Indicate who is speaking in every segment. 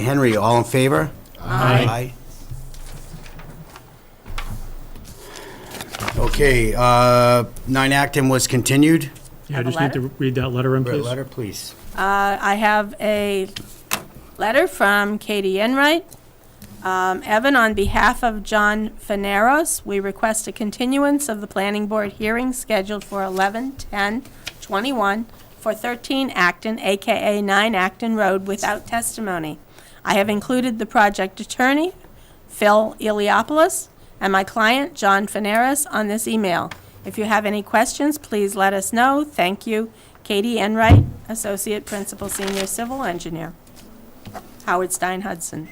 Speaker 1: Henry, all in favor? Aye. Okay, uh, 9 Acton was continued.
Speaker 2: Yeah, I
Speaker 3: Have a
Speaker 2: just need to read that letter in,
Speaker 1: Brett,
Speaker 2: please.
Speaker 1: letter, please.
Speaker 3: Uh, I have a letter from Katie Enright. Um, Evan, on behalf of John Faneros, we request a continuance of the planning board hearing scheduled for 11/10/21 for 13 Acton, AKA 9 Acton Road, without testimony. I have included the project attorney, Phil Iliopoulos, and my client, John Faneras, on this email. If you have any questions, please let us know. Thank you. Katie Enright, Associate Principal Senior Civil Engineer. Howard Stein Hudson.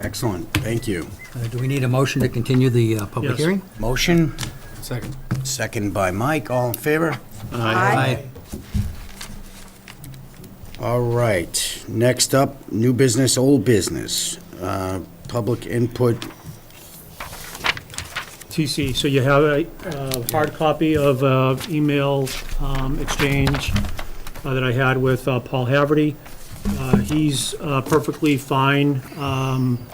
Speaker 1: Excellent, thank you.
Speaker 4: Uh, Do we need a motion to continue the uh, public
Speaker 2: Yes.
Speaker 4: hearing?
Speaker 1: Motion,
Speaker 4: Second.
Speaker 1: second by Mike, all in favor?
Speaker 4: Aye.
Speaker 1: All right, next up, new business, old business, Uh, public input.
Speaker 2: TC, so you have a uh, hard copy of uh, email um, exchange uh, that I had with uh, Paul Haverty. Uh, He's uh, perfectly fine um,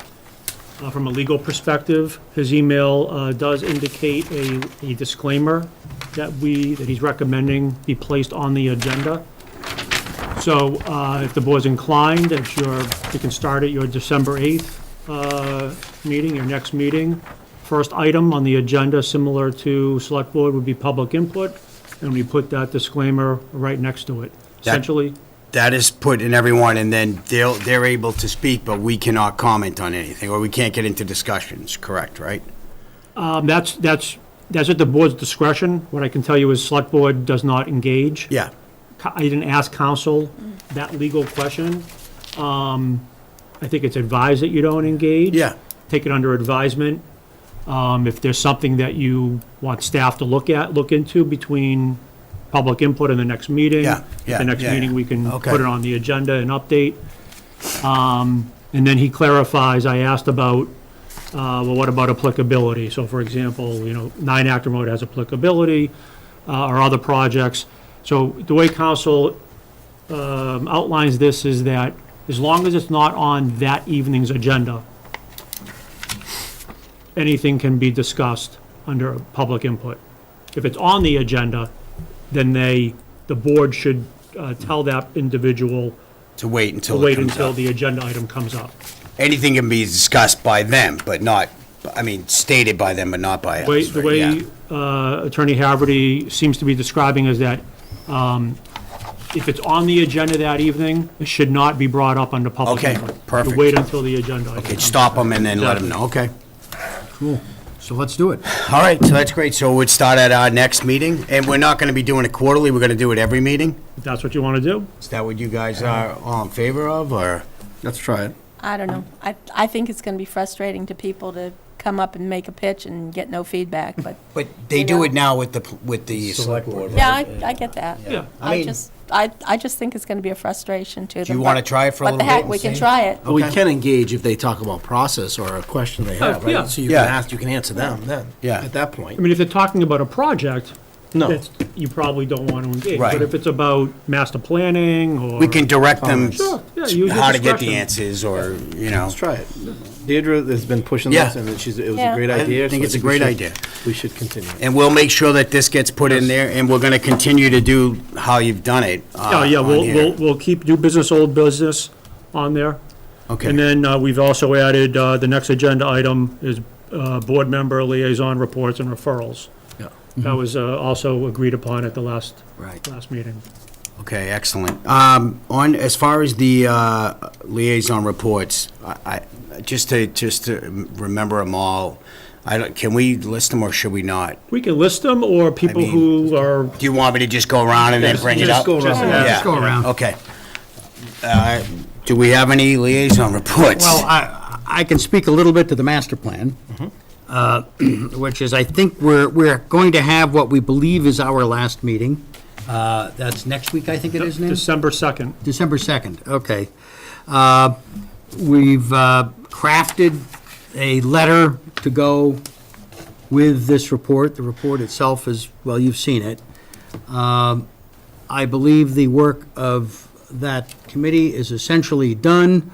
Speaker 2: uh, from a legal perspective. His email uh, does indicate a a disclaimer that we, that he's recommending be placed on the agenda. So uh, if the board's inclined, if you're, you can start at your December 8th uh, meeting, your next meeting. First item on the agenda, similar to select board, would be public input, and we put that disclaimer right next to it.
Speaker 1: That-
Speaker 2: Essentially,
Speaker 1: That is put in everyone, and then they'll, they're able to speak, but we cannot comment on anything, or we can't get into discussions, correct, right?
Speaker 2: um, that's, that's, that's at the board's discretion. What I can tell you is select board does not engage.
Speaker 1: Yeah,
Speaker 2: co- I didn't ask counsel that legal question. Um, I think it's advised that you don't engage.
Speaker 1: Yeah.
Speaker 2: Take it under advisement. Um, If there's something that you want staff to look at, look into between public input and the next meeting.
Speaker 1: Yeah, yeah,
Speaker 2: At the next
Speaker 1: yeah,
Speaker 2: meeting, we can
Speaker 1: Okay.
Speaker 2: put it on the agenda and update. Um, And then he clarifies, I asked about uh, well, what about applicability? So for example, you know, nine actor mode has applicability, uh, or other projects. So the way council, um, outlines this is that as long as it's not on that evening's agenda, anything can be discussed under public input. If it's on the agenda, then they, the board should, uh, tell that individual,
Speaker 1: to wait until it
Speaker 2: wait
Speaker 1: comes
Speaker 2: until
Speaker 1: up.
Speaker 2: the agenda item comes up.
Speaker 1: Anything can be discussed by them, but not, I mean, stated by them, but not by us.
Speaker 2: way, the
Speaker 1: right?
Speaker 2: way
Speaker 1: Yeah.
Speaker 2: uh, Attorney Haverty seems to be describing is that um, if it's on the agenda that evening, it should not be brought up under public
Speaker 1: Okay,
Speaker 2: input. You
Speaker 1: perfect.
Speaker 2: wait until the agenda. item
Speaker 1: Okay,
Speaker 2: comes
Speaker 1: stop them and then let them know, okay.
Speaker 4: So let's do it.
Speaker 1: All right, so that's great, so we'd start at our next meeting, and we're not gonna be doing it quarterly, we're gonna do it every meeting?
Speaker 2: If that's what you want to do,
Speaker 1: Is that what you guys are all in favor of, or?
Speaker 4: Let's try it.
Speaker 3: I don't know. I, I think it's going to be frustrating to people to come up and make a pitch and get no feedback, but,
Speaker 1: But they do it now with the, with the select
Speaker 4: Select board.
Speaker 1: board.
Speaker 3: yeah, I, I get that.
Speaker 2: yeah.
Speaker 1: I
Speaker 3: I
Speaker 1: mean-
Speaker 3: just, I, I just think it's going to be a frustration to them.
Speaker 1: you wanna
Speaker 3: but-
Speaker 1: try it for a
Speaker 3: What the
Speaker 1: little bit
Speaker 3: heck,
Speaker 1: and
Speaker 3: we can
Speaker 1: see?
Speaker 3: try it.
Speaker 5: But we
Speaker 1: Okay.
Speaker 5: can engage if they talk about process or a question they have,
Speaker 2: yeah.
Speaker 5: right? So you can
Speaker 1: Yeah.
Speaker 5: ask, you can answer them then,
Speaker 1: Yeah.
Speaker 5: at that
Speaker 2: I
Speaker 5: point.
Speaker 2: mean, if they're talking about a project,
Speaker 5: No.
Speaker 2: that's- you probably don't want to engage.
Speaker 1: Right.
Speaker 2: But if it's about master planning or.
Speaker 1: We can direct them
Speaker 2: Sure, yeah, use your
Speaker 1: how to get the
Speaker 2: discretion.
Speaker 1: ansces, or, you know.
Speaker 5: Let's try it. Deirdre has been pushing
Speaker 1: Yeah.
Speaker 5: this, and she's, it was
Speaker 3: Yeah.
Speaker 5: a great
Speaker 1: I
Speaker 5: idea. so
Speaker 1: think it's a
Speaker 5: we
Speaker 1: great
Speaker 5: should-
Speaker 1: idea.
Speaker 5: We should continue.
Speaker 1: And we'll make sure that this gets put in there, and we're gonna continue to do how you've done it. uh,
Speaker 2: Oh, yeah,
Speaker 1: on
Speaker 2: we'll,
Speaker 1: here.
Speaker 2: we'll, we'll keep new business, old business on there.
Speaker 1: Okay.
Speaker 2: And then uh, we've also added, uh, the next agenda item is uh, board member liaison reports and referrals.
Speaker 5: Yeah.
Speaker 2: That
Speaker 1: Mm-hmm.
Speaker 2: was uh, also agreed upon at the last,
Speaker 1: Right.
Speaker 2: last meeting.
Speaker 1: Okay, excellent. Um, On, as far as the uh, liaison reports, I, I- just to, just to remember them all, I don't, can we list them or should we not?
Speaker 2: We can list them, or people
Speaker 1: mean-
Speaker 2: who are,
Speaker 1: Do you want me to just go around and then
Speaker 2: Just-
Speaker 1: bring it
Speaker 2: just
Speaker 1: up?
Speaker 2: go around.
Speaker 1: Yeah.
Speaker 2: Just go around.
Speaker 1: Okay. Uh, Do we have any liaison reports?
Speaker 4: Well, I, I can speak a little bit to the master plan, uh, which is, I think we're, we're going to have what we believe is our last meeting. Uh, That's next week, I think it is now?
Speaker 2: December 2nd.
Speaker 4: December 2nd, okay. Uh, We've uh, crafted a letter to go with this report. The report itself is, well, you've seen it. Um, I believe the work of that committee is essentially done.